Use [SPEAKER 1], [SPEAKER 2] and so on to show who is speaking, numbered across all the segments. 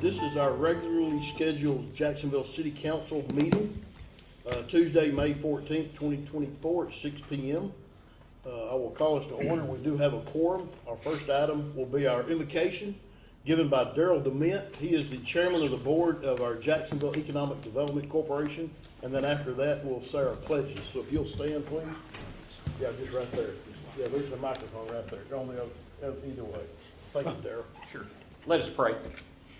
[SPEAKER 1] this is our regularly scheduled Jacksonville City Council meeting, uh, Tuesday, May fourteenth, twenty twenty-four, at six P M. Uh, I will call us to order. We do have a quorum. Our first item will be our invocation given by Daryl Dement. He is the chairman of the board of our Jacksonville Economic Development Corporation. And then after that, we'll say our pledges. So if you'll stand, please. Yeah, just right there. Yeah, there's the microphone right there. Go on the other, uh, either way. Thank you, Daryl.
[SPEAKER 2] Sure. Let us pray.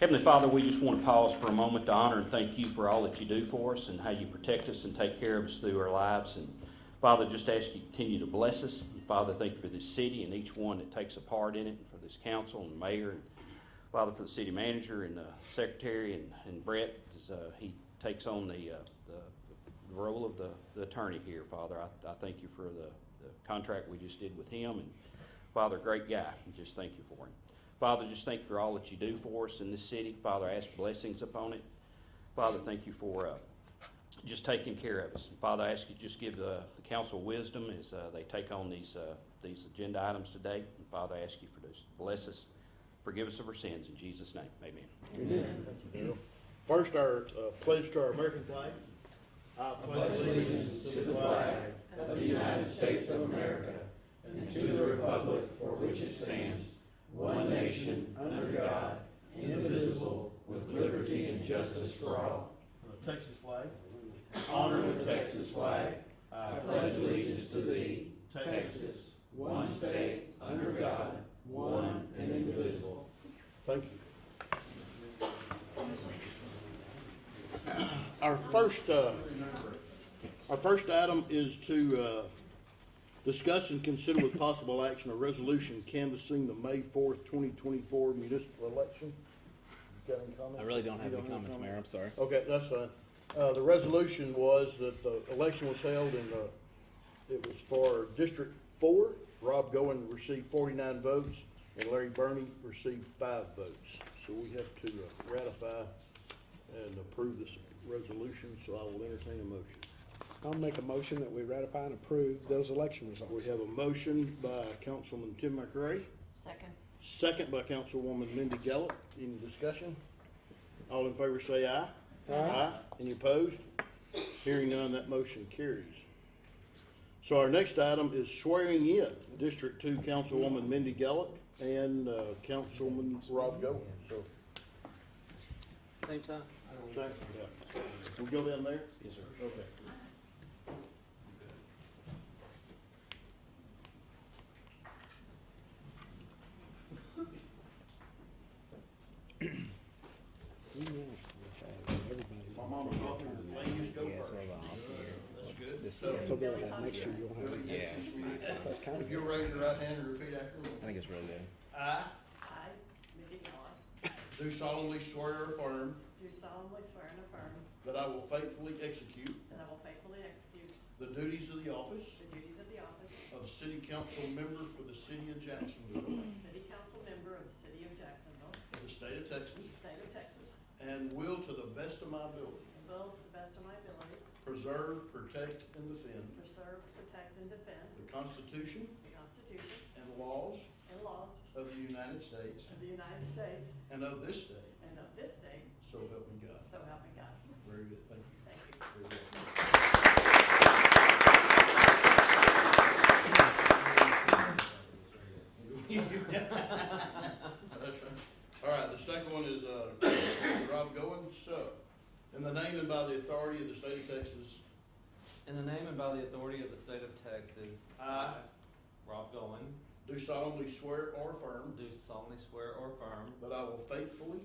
[SPEAKER 2] Heavenly Father, we just want to pause for a moment to honor and thank you for all that you do for us and how you protect us and take care of us through our lives. And Father, just ask you to continue to bless us. And Father, thank you for this city and each one that takes a part in it, and for this council and mayor, and Father, for the city manager and uh, secretary and, and Brett as uh, he takes on the, uh, the, the role of the, the attorney here. Father, I, I thank you for the, the contract we just did with him and Father, great guy. and Just thank you for him. Father, just thank you for all that you do for us in this city. Father, I ask blessings upon it. Father, thank you for uh, just taking care of us. Father, I ask you just give the, the council wisdom as uh, they take on these uh, these agenda items today. And Father, I ask you for those bless us, forgive us of our sins in Jesus' name. Amen.
[SPEAKER 1] Thank you, Darryl. First, our uh, pledge to our American flag. I pledge allegiance to the flag of the United States of America and to the republic for which it stands, one nation, under God, indivisible, with liberty and justice for all. Texas flag. Honor the Texas flag. I pledge allegiance to thee, Texas. Thank you. Our first, uh, our first item is to, uh, discuss and consider with possible action a resolution canvassing the May fourth, twenty twenty-four municipal election. Got any comments?
[SPEAKER 3] I really don't have
[SPEAKER 1] You
[SPEAKER 3] any comments, Mayor, I'm sorry.
[SPEAKER 1] Okay, that's fine. Uh, the resolution was that the election was held and, uh, it was for District Four. Rob Goen received forty-nine votes and Larry Burney received five votes. So we have to uh, ratify and approve this resolution, so I will entertain a motion.
[SPEAKER 4] I'll make a motion that we ratify and approve those election
[SPEAKER 1] We
[SPEAKER 4] results.
[SPEAKER 1] have a motion by Councilman Tim McRae,
[SPEAKER 5] Second.
[SPEAKER 1] second by Councilwoman Mindy Gallup. Any discussion? All in favor say aye. Aye. Any opposed? Hearing none, that motion carries. So our next item is swearing in District Two Councilwoman Mindy Gallup and uh, Councilman Rob Goins. So,
[SPEAKER 3] Same time?
[SPEAKER 1] thank you. We go down there? Yes, sir. Okay.
[SPEAKER 4] You know,
[SPEAKER 3] Yes,
[SPEAKER 4] everybody's-
[SPEAKER 3] hold on. This
[SPEAKER 4] So
[SPEAKER 3] is,
[SPEAKER 4] go ahead, make sure you don't have,
[SPEAKER 3] yeah,
[SPEAKER 4] that's kind
[SPEAKER 1] If
[SPEAKER 4] of,
[SPEAKER 1] you'll raise your right hand and repeat after me.
[SPEAKER 3] I think it's really good.
[SPEAKER 1] I
[SPEAKER 5] I, Mindy Miller,
[SPEAKER 1] do solemnly swear or affirm
[SPEAKER 5] do solemnly swear and affirm
[SPEAKER 1] that I will faithfully execute
[SPEAKER 5] that I will faithfully execute
[SPEAKER 1] the duties of the office
[SPEAKER 5] the duties of the office
[SPEAKER 1] of City Council Member for the City of Jacksonville,
[SPEAKER 5] of City Council Member of the City of Jacksonville,
[SPEAKER 1] of the State of Texas,
[SPEAKER 5] State of Texas,
[SPEAKER 1] and will to the best of my ability
[SPEAKER 5] and will to the best of my ability
[SPEAKER 1] preserve, protect, and defend
[SPEAKER 5] preserve, protect, and defend
[SPEAKER 1] the Constitution
[SPEAKER 5] the Constitution
[SPEAKER 1] and laws
[SPEAKER 5] and laws
[SPEAKER 1] of the United States
[SPEAKER 5] of the United States
[SPEAKER 1] and of this state,
[SPEAKER 5] and of this state,
[SPEAKER 1] so help me God.
[SPEAKER 5] so help me God.
[SPEAKER 1] Very good, thank you.
[SPEAKER 5] Thank you.
[SPEAKER 1] All right, the second one is, uh, Rob Goins, so, in the name and by the authority of the state of Texas,
[SPEAKER 6] In the name and by the authority of the state of Texas,
[SPEAKER 1] I
[SPEAKER 6] Rob Goen,
[SPEAKER 1] do solemnly swear or affirm
[SPEAKER 6] do solemnly swear or affirm
[SPEAKER 1] that I will faithfully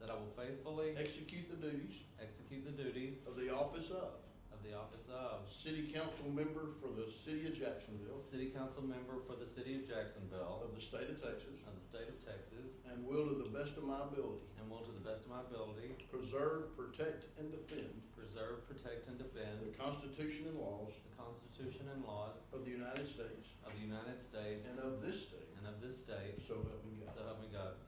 [SPEAKER 6] that I will faithfully
[SPEAKER 1] execute the duties
[SPEAKER 6] execute the duties
[SPEAKER 1] of the office of
[SPEAKER 6] of the office of
[SPEAKER 1] city council member for the city of Jacksonville,
[SPEAKER 6] city council member for the city of Jacksonville
[SPEAKER 1] of the state of Texas,
[SPEAKER 6] of the state of Texas,
[SPEAKER 1] and will to the best of my ability
[SPEAKER 6] and will to the best of my ability
[SPEAKER 1] preserve, protect, and defend
[SPEAKER 6] preserve, protect, and
[SPEAKER 1] the
[SPEAKER 6] defend
[SPEAKER 1] Constitution and laws
[SPEAKER 6] the Constitution and laws
[SPEAKER 1] of the United States
[SPEAKER 6] of the United States
[SPEAKER 1] and of this state,
[SPEAKER 6] and of this state,
[SPEAKER 1] so help me God.
[SPEAKER 6] so help me God.